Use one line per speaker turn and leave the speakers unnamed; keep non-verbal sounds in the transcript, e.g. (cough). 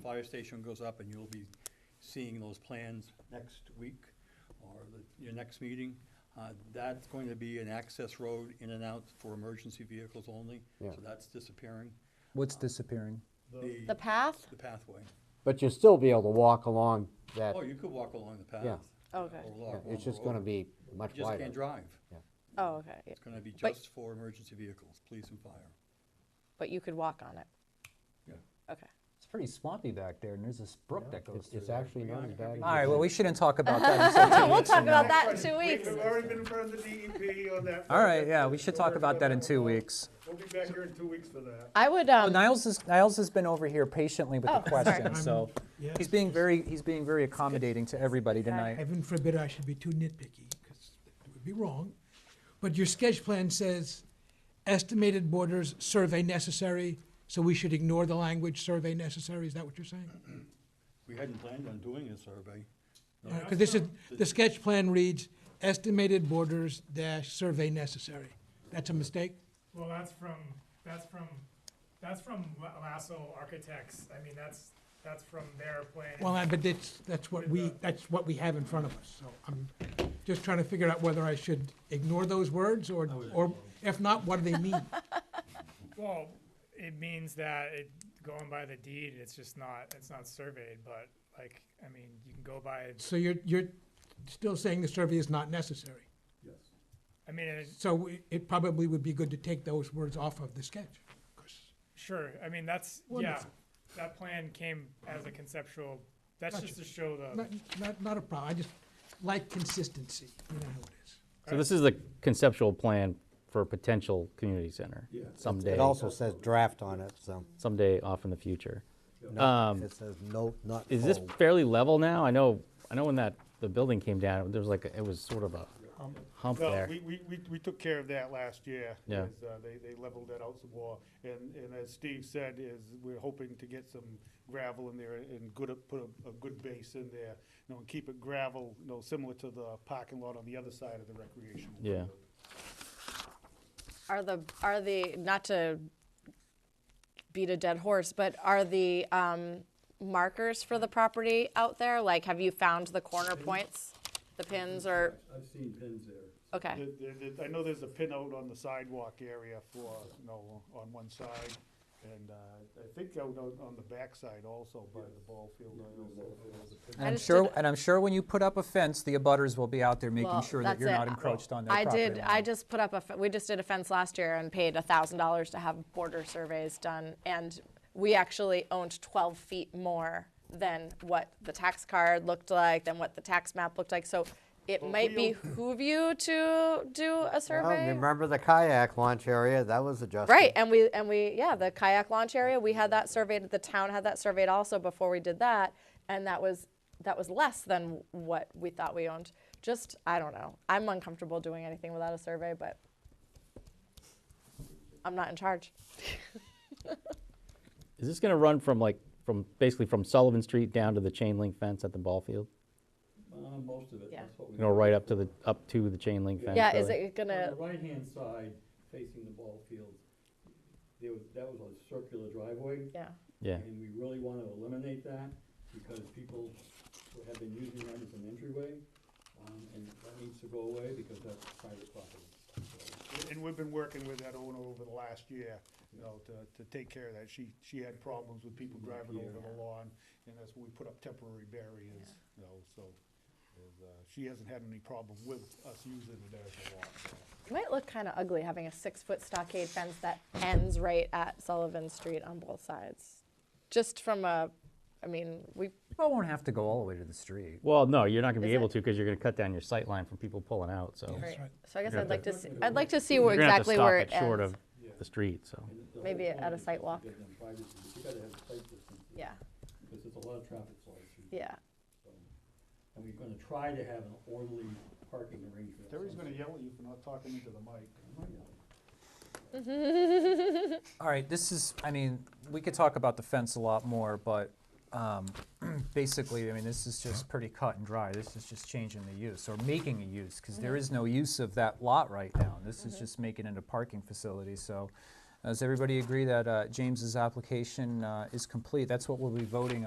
fire station goes up, and you'll be seeing those plans next week or the- your next meeting. Uh, That's going to be an access road in and out for emergency vehicles only,
Yeah.
so that's disappearing.
What's disappearing?
The
The path?
the pathway.
But you'll still be able to walk along that,
Oh, you could walk along the path.
Yeah.
Okay.
or
yeah,
walk along
it's
the
just gonna
road.
be
You
much
just can't
wider.
drive.
Oh, okay. yeah.
It's gonna be
But-
just for emergency vehicles, police and fire.
But you could walk on it.
Yeah.
Okay.
It's pretty swampy back there, and there's this brook that goes
It's,
through
it's
there.
actually not as bad. as
All right,
you
well,
think.
we shouldn't talk about that. (laughs) until two
Oh, We'll
weeks
talk
from now.
about that in two
We've
weeks.
already been in front of the DEP on that.
All right,
project.
yeah, we should talk about that in two weeks. Oh,
We'll be back here in two weeks for that.
I would, um,
Niles has, Niles has been over here patiently with the
Oh, sorry.
question, so he's being very, he's being very accommodating to everybody tonight.
Heaven forbid I should be too nitpicky, because it would be wrong. But your sketch plan says estimated borders, survey necessary, so we should ignore the language, survey necessary, is that what you're saying?
We hadn't planned on doing a survey.
Because this is, the sketch plan reads estimated borders dash survey necessary. That's a mistake?
Well, that's from, that's from, that's from La- Lasso Architects, I mean, that's, that's from their plan.
Well, I- but that's, that's what we, that's what we have in front of us, so I'm just trying to figure out whether I should ignore those words, or, or if not, what do they mean?
Well, it means that it, going by the deed, it's just not, it's not surveyed, but like, I mean, you can go by,
So you're, you're still saying the survey is not necessary?
I mean, it-
So it- it probably would be good to take those words off of the sketch. 'cause-
sure, I mean, that's, yeah.
Wonderful.
That plan came as a conceptual, that's
Gotcha.
just to show the,
Not, not, not a problem, I just like consistency, you know how it is.
So this is the conceptual plan for a potential community center someday,
It also says draft on it, so
someday off in the future.
no, it says no, not
Is this
full.
fairly level now? I know, I know when that, the building came down, there was like, a- it was sort of a hump
No,
there.
we, we, we, we took care of that last year.
Yeah.
is, uh, They, they leveled that out some more, and, and as Steve said, is we're hoping to get some gravel in there and good, put a, a good base in there, you know, and keep it gravel, you know, similar to the parking lot on the other side of the recreational.
Yeah.
field.
are the, are the, not to beat a dead horse, but are the, um, markers for the property out there? Like, have you found the corner points, the pins or,
I've seen pins there.
okay,
There- there- there- I know there's a pin out on the sidewalk area for, you know, on one side, and uh, I think out on on the backside also by the ball field. I also-
And
I
I'm
just
sure,
did-
and I'm sure when you put up a fence, the abutters will be out there making
Well,
sure that
that's
you're
it.
not encroached on their
I
property
did, I
line.
just put up a, fe- we just did a fence last year and paid a thousand dollars to have border surveys done. And we actually owned twelve feet more than what the tax card looked like, than what the tax map looked like. So it might
we-
behoove you to do a
Well,
survey.
Remember the kayak launch area, that was adjusted.
Right, and we, and we, yeah, the kayak launch area, we had that surveyed, the town had that surveyed also before we did that, and that was, that was less than what we thought we owned. Just, I don't know, I'm uncomfortable doing anything without a survey, but I'm not in charge.
Is this gonna run from like, from, basically from Sullivan Street down to the chain link fence at the ball field?
Uh, most of it,
Yeah.
that's what we.
You know, right up to the, up to the chain link fence?
Yeah, is
really?
it gonna,
On the right-hand side, facing the ball field, there was, that was a circular driveway.
yeah,
Yeah,
And we really want to eliminate that because people who have been using that as an entryway. Um, and that needs to go away because that's private property.
And we've been working with that owner over the last year, you know, to, to take care of that. She, she had problems with people driving over the lawn, and that's when we put up temporary barriers, you know, so. is, uh, She hasn't had any problem with us using it as a lawn. so.
it might look kinda ugly having a six-foot stockade fence that ends right at Sullivan Street on both sides. Just from a, I mean, we,
Well, won't have to go all the way to the street.
well, no, you're not gonna be
Is
able
it-
to, cause you're gonna cut down your sight line from people pulling out, so.
Right.
so I guess
You're
I'd
gonna
like
have
to, see. I'd like to see where
You're gonna have to
exactly
stop
where it
it short
ends.
of the street, so.
And the whole
Maybe
point
at a
is
site
to
walk.
give them privacy, but you gotta have a site distance.
Yeah,
Because there's a lot of traffic flowing through.
yeah.
And we're gonna try to have an orderly parking arrangement.
Terry's gonna yell at you for not talking into the mic.
All right, this is, I mean, we could talk about the fence a lot more, but um, (clears throat) basically, I mean, this is just pretty cut and dry. This is just changing the use or making a use, because
Mm-hmm.
is no use of that lot right now. This is just making it a parking facility, so does everybody agree that uh, James's application uh, is complete? That's what we'll be voting on.